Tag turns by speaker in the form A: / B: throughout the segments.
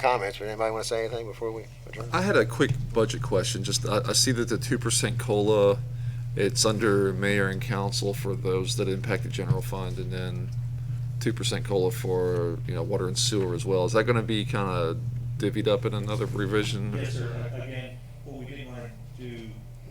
A: comments, but anybody want to say anything before we adjourn?
B: I had a quick budget question. Just, I, I see that the two percent COLA, it's under mayor and council for those that impact the general fund, and then two percent COLA for, you know, water and sewer as well. Is that gonna be kinda divvied up in another revision?
C: Yes, sir. Again, what we didn't want to do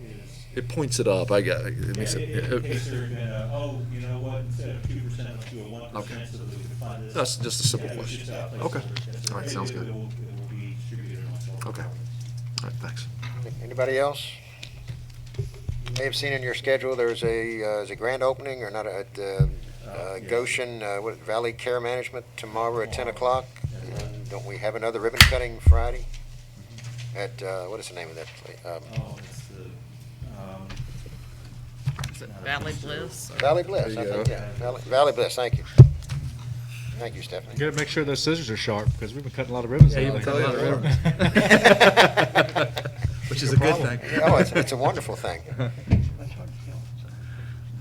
C: is,
B: It points it up, I got, it makes
C: Yeah,
B: it.
C: in in case there had been a, oh, you know what, instead of two percent, let's do a one
B: Okay.
C: percent so that we can fund this.
B: That's just a simple
C: Yeah, it was just
B: question.
C: a placeholder.
B: Okay.
C: Yes,
B: All right,
C: sir.
B: sounds
C: It-
B: good.
C: It will, it will be distributed amongst all.
B: Okay. All right, thanks.
A: Anybody else? You may have seen in your schedule, there's a, uh, is a grand opening or not, at uh, uh,
C: yes.
A: Goshen, uh, what, Valley Care Management tomorrow at 10 o'clock?
C: That's right.
A: And Don't we have another ribbon cutting Friday? At, uh, what is the name of that place? Um,
C: Oh, it's the, um.
D: Is it
C: not a
D: Valley
C: bistro.
D: Bliss? or-
A: Valley Bliss,
B: There
A: I
B: you
A: think,
B: go.
A: yeah. Valley- Valley Bliss, thank you. Thank you, Stephanie.
E: You gotta make sure those scissors are sharp, because we've been cutting a lot of ribbons.
D: Yeah, you've been
E: lately.
D: cutting a lot of
F: Which is a good thing.
A: Oh, it's, it's a wonderful thing.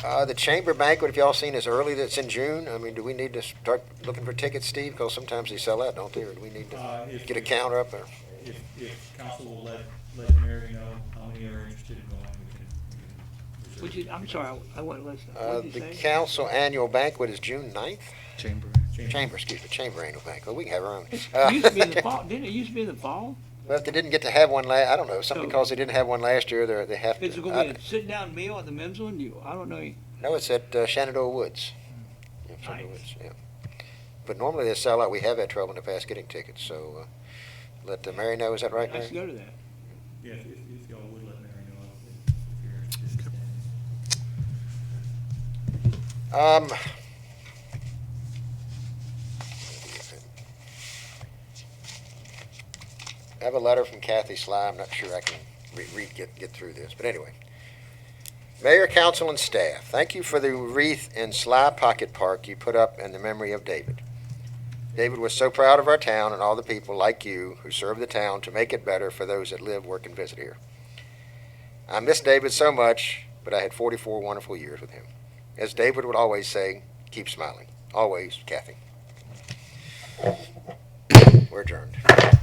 A: Uh, the chamber banquet, if y'all seen, is early, that's in June. I mean, do we need to start looking for tickets, Steve? Because sometimes they sell out, don't they? Or do we need to
C: Uh, if-
A: get a counter up there?
C: If, if council will let, let Mary know how many are interested in going, we can. we can
G: Would you, I'm sorry, I- I wasn't listening.
A: Uh,
G: What did
A: the
G: you say?
A: council annual banquet is June 9th?
F: Chamber.
C: reserve-
A: Chamber, excuse me, chamber annual banquet. We can have our own. Uh,
G: It used to be in the fall, didn't it used to be in the fall?
A: Well, if they didn't get to have one la, I don't know, something
G: No.
A: because they didn't have one last year, they're, they have to.
G: It's gonna be
A: I-
G: a sit-down meal at the men's one, you, I don't know.
A: No, it's at uh, Shenandoah Woods. Yeah, Shenandoah Woods, yeah. But normally they sell out. We have had trouble in the past getting tickets, so uh, let uh, Mary know. Is that right,
G: I should
A: Mary?
G: go to that.
C: Yeah, if, if if y'all would let Mary know if if you're interested in attending.
A: Um, I have a letter from Kathy Sly. I'm not sure I can re- read, get, get through this, but anyway. Mayor, council, and staff, thank you for the wreath in Sly Pocket Park you put up in the memory of David. David was so proud of our town and all the people like you who serve the town to make it better for those that live, work, and visit here. I miss David so much, but I had 44 wonderful years with him. As David would always say, keep smiling. Always, Kathy. We're adjourned.